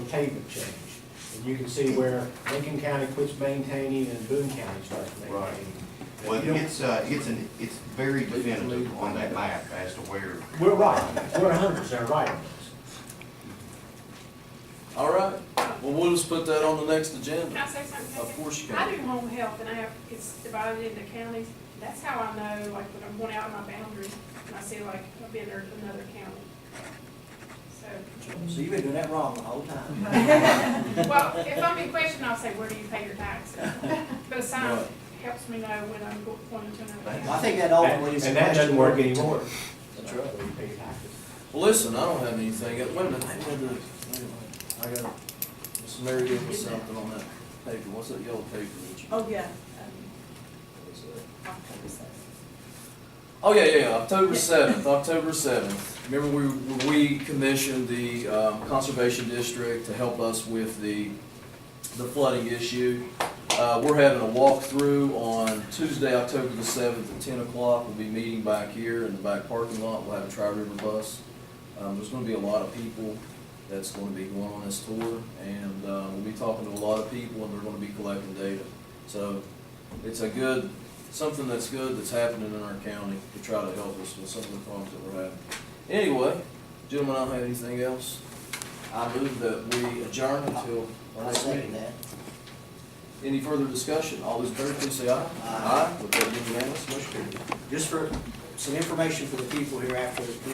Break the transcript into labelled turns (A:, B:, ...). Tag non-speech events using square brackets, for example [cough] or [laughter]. A: pavement change. And you can see where Lincoln County quits maintaining and Boone County starts
B: Right.
A: maintaining.
B: Well,
A: You don't-
B: it's, uh, it's an, it's very definitive on that map as to where.
A: We're right, we're a hundred percent right on this.
C: All right, well, we'll just put that on the next
D: Can
C: agenda.
D: I say something?
C: Of course you can.
D: I do home health and I have, it's divided into counties. That's how I know, like, when I'm going out my boundaries and I see like, I've been there to another county. So,
E: So you've been doing that wrong the whole time.
D: well, if I'm in question, I'll say, where do you pay
C: [laughs]
D: your taxes? But a sign
C: Right.
D: helps me know when I'm go- going to another
E: Well, I
D: county.
E: think that ultimately is.
A: And that doesn't work
E: questionable.
A: anymore.
E: That's right.
A: We pay taxes.
C: Well, listen, I don't have anything, wait a minute, wait a minute, wait a minute. I got, Miss Mary gave me something on that paper, what's that yellow paper that you?
F: Oh, yeah.
C: what is that?
F: um, October seventh.
C: Oh, yeah, yeah, yeah, October
F: Yeah.
C: seventh, October seventh. Remember, we, we commissioned the, um, Conservation District to help us with the, the flooding issue. Uh, we're having a walkthrough on Tuesday, October the seventh at ten o'clock. We'll be meeting back here in the back parking lot. We'll have a Tri-River bus. Um, there's gonna be a lot of people that's gonna be going on this tour, and, uh, we'll be talking to a lot of people, and they're gonna be collecting data. So, it's a good, something that's good that's happening in our county to try to help us with some of the problems that we're having. Anyway, gentlemen, I don't have anything else. I move that we adjourn until our
E: I
C: next
E: second
C: meeting.
E: that.
C: Any further discussion? All those in favor, please say aye.
E: Aye.
C: With that being unanimous, motion carried.
E: Just for some information for the people here after the